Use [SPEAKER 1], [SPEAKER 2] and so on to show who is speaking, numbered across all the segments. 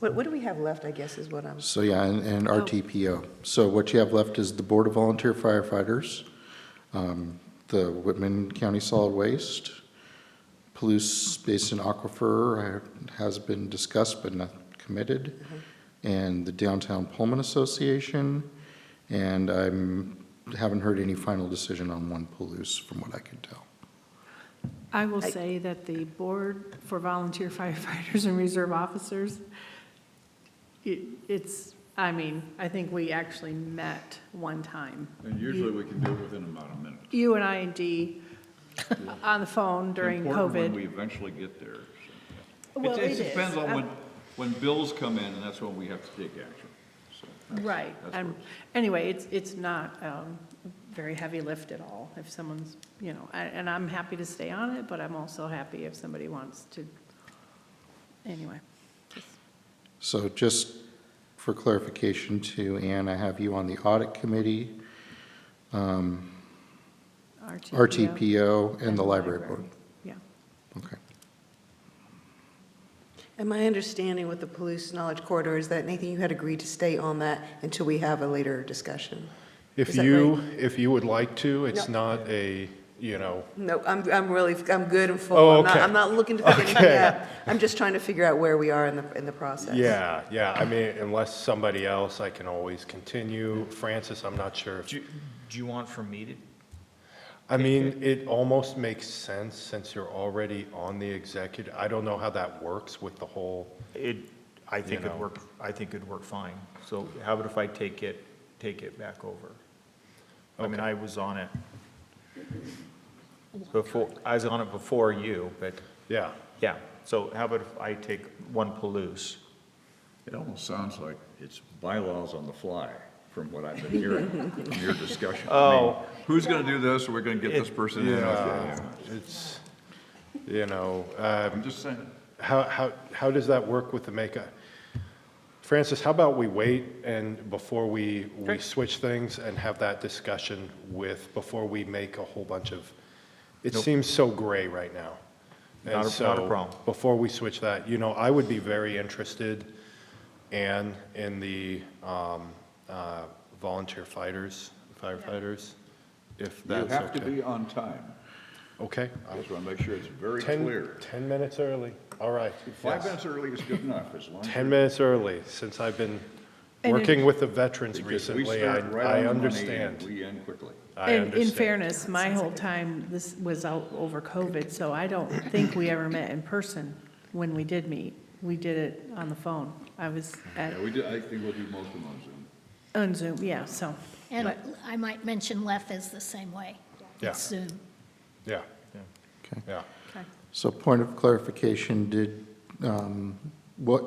[SPEAKER 1] What, what do we have left, I guess, is what I'm,
[SPEAKER 2] So, yeah, and, and RTPO. So what you have left is the Board of Volunteer Firefighters, um, the Whitman County Solid Waste, Palouse Basin Aquifer uh, has been discussed but not committed, and the Downtown Pullman Association, and I'm, haven't heard any final decision on one Palouse, from what I can tell.
[SPEAKER 3] I will say that the Board for Volunteer Firefighters and Reserve Officers, it, it's, I mean, I think we actually met one time.
[SPEAKER 4] And usually we can do it within about a minute.
[SPEAKER 3] You and I and Dee on the phone during
[SPEAKER 4] Important when
[SPEAKER 3] COVID.
[SPEAKER 4] we eventually get there. so, yeah.
[SPEAKER 3] Well,
[SPEAKER 4] It
[SPEAKER 3] it
[SPEAKER 4] it depends
[SPEAKER 3] is.
[SPEAKER 4] on
[SPEAKER 3] I'm-
[SPEAKER 4] when, when bills come in, and that's when we have to take action. So that's-
[SPEAKER 3] Uh, Right.
[SPEAKER 4] that's
[SPEAKER 3] And
[SPEAKER 4] what-
[SPEAKER 3] anyway, it's, it's not um, very heavy lift at all if someone's, you know, I- and I'm happy to stay on it, but I'm also happy if somebody wants to. Anyway,
[SPEAKER 2] So just for clarification too, Ann, I have you on the Audit Committee,
[SPEAKER 3] RTPO.
[SPEAKER 2] RTPO, and the Library Board.
[SPEAKER 3] Yeah.
[SPEAKER 2] Okay.
[SPEAKER 1] and my understanding with the Palouse Knowledge Corridor is that, Nathan, you had agreed to stay on that until we have a later discussion. Is
[SPEAKER 5] If
[SPEAKER 1] that
[SPEAKER 5] you,
[SPEAKER 1] right?
[SPEAKER 5] if you would like to, it's
[SPEAKER 1] No.
[SPEAKER 5] not a, you know,
[SPEAKER 1] No, I'm, I'm really, I'm good and full.
[SPEAKER 5] Oh,
[SPEAKER 1] I'm not-
[SPEAKER 5] okay.
[SPEAKER 1] I'm not looking to figure anything
[SPEAKER 5] Okay.
[SPEAKER 1] out. I'm just trying to figure out where we are in the, in the process.
[SPEAKER 5] yeah, yeah, I mean, unless somebody else, I can always continue. Francis, I'm not sure. if-
[SPEAKER 6] Do, do you want from me to,
[SPEAKER 5] I mean, it almost makes sense since you're already on the executive. I don't know how that works with the whole,
[SPEAKER 6] it, I think
[SPEAKER 5] You
[SPEAKER 6] it'd
[SPEAKER 5] know.
[SPEAKER 6] work, I think it'd work fine. So how about if I take it, take it back over? I mean, I was on it before, I was on it before you, but,
[SPEAKER 5] yeah.
[SPEAKER 6] yeah. So how about if I take one Palouse?
[SPEAKER 4] It almost sounds like it's bylaws on the fly, from what I've been hearing from your discussion. I mean,
[SPEAKER 6] Oh.
[SPEAKER 4] Who's going to do this, we're going to get this person in. okay,
[SPEAKER 5] Yeah,
[SPEAKER 4] yeah.
[SPEAKER 5] it's, you know, um,
[SPEAKER 4] I'm just saying.
[SPEAKER 5] How, how, how does that work with the makeup? Francis, how about we wait and before we, we switch things and have that discussion with, before we make a whole bunch of, it seems so gray right now. And
[SPEAKER 6] Not a- not a
[SPEAKER 5] so,
[SPEAKER 6] problem.
[SPEAKER 5] Before we switch that, you know, I would be very interested, Ann, in the um, uh, volunteer fighters, firefighters, if
[SPEAKER 4] You
[SPEAKER 5] that's okay.
[SPEAKER 4] have to be on time.
[SPEAKER 5] Okay,
[SPEAKER 4] I just want to make sure it's very
[SPEAKER 5] ten,
[SPEAKER 4] clear.
[SPEAKER 5] ten minutes early, all right.
[SPEAKER 4] Five
[SPEAKER 5] Yes.
[SPEAKER 4] minutes early is good enough, as long as.
[SPEAKER 5] 10 minutes early, since I've been
[SPEAKER 3] And in-
[SPEAKER 5] working with the veterans
[SPEAKER 4] because we
[SPEAKER 5] recently, I,
[SPEAKER 4] start right on
[SPEAKER 5] I
[SPEAKER 4] the money and
[SPEAKER 5] understand.
[SPEAKER 4] We end quickly.
[SPEAKER 5] I
[SPEAKER 3] And in
[SPEAKER 5] understand.
[SPEAKER 3] fairness, my whole time, this was out over COVID, so I don't think we ever met in person when we did meet. We did it on the phone. I was at,
[SPEAKER 4] Yeah, we do, I think we'll do most of them on Zoom.
[SPEAKER 3] on Zoom, yeah, so.
[SPEAKER 7] And I might mention Left is the same way.
[SPEAKER 5] Yeah.
[SPEAKER 7] It's Zoom.
[SPEAKER 5] Yeah,
[SPEAKER 2] Okay.
[SPEAKER 5] yeah.
[SPEAKER 2] So point of clarification, did, um, what,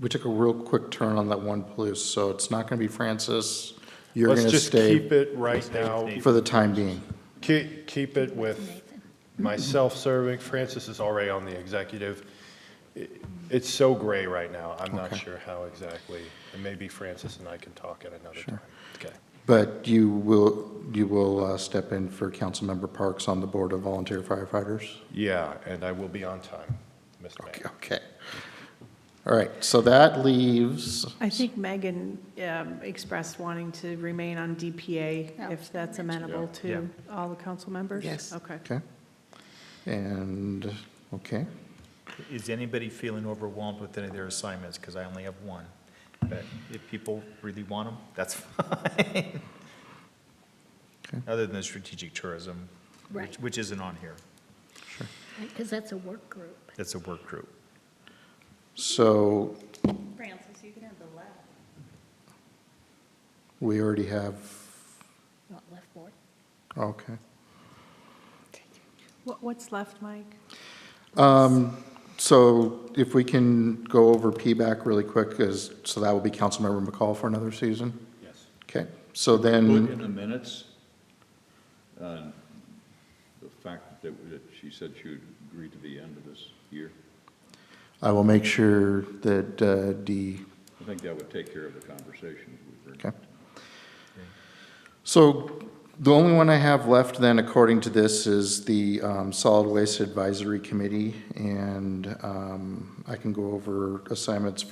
[SPEAKER 2] we took a real quick turn on that one Palouse, so it's not going to be Francis. You're going
[SPEAKER 5] Let's
[SPEAKER 2] to
[SPEAKER 5] just keep
[SPEAKER 2] stay
[SPEAKER 5] it right now,
[SPEAKER 2] for the time being.
[SPEAKER 5] keep, keep it with
[SPEAKER 7] Nathan.
[SPEAKER 5] myself serving, Francis is already on the executive. I- It's so gray right now, I'm not
[SPEAKER 2] Okay.
[SPEAKER 5] sure how exactly, and maybe Francis and I can talk at another time. Okay,
[SPEAKER 2] But you will, you will uh, step in for Councilmember Parks on the Board of Volunteer Firefighters?
[SPEAKER 5] yeah, and I will be on time, Mr.
[SPEAKER 2] Okay,
[SPEAKER 5] Mayor.
[SPEAKER 2] Okay. All right, so that leaves,
[SPEAKER 3] I think Megan um, expressed wanting to remain on DPA,
[SPEAKER 7] Yeah.
[SPEAKER 3] if that's amenable
[SPEAKER 6] Yeah.
[SPEAKER 3] to all the council members?
[SPEAKER 1] Yes.
[SPEAKER 3] Okay.
[SPEAKER 2] okay. And, okay,
[SPEAKER 6] Is anybody feeling overwhelmed with any of their assignments? Because I only have one. But if people really want them, that's fine.
[SPEAKER 2] Okay.
[SPEAKER 6] Other than the strategic tourism, which,
[SPEAKER 7] Right.
[SPEAKER 6] which isn't on here.
[SPEAKER 7] Because that's a work group.
[SPEAKER 6] That's a work group.
[SPEAKER 2] so
[SPEAKER 7] Francis, you can have the left.
[SPEAKER 2] we already have,
[SPEAKER 7] Not left board.
[SPEAKER 2] okay.
[SPEAKER 3] What- What's left, Mike?
[SPEAKER 2] Um, So if we can go over P-BAC really quick, is, so that will be Councilmember McCall for another season?
[SPEAKER 5] Yes.
[SPEAKER 2] Okay, so
[SPEAKER 4] Put
[SPEAKER 2] then,
[SPEAKER 4] in the minutes, uh, the fact that that she said she would agree to the end of this year.
[SPEAKER 2] I will make sure that uh, D
[SPEAKER 4] I think that would take care of the conversations we were.
[SPEAKER 2] Okay. So the only one I have left then, according to this, is the um, Solid Waste Advisory Committee, and um, I can go over assignments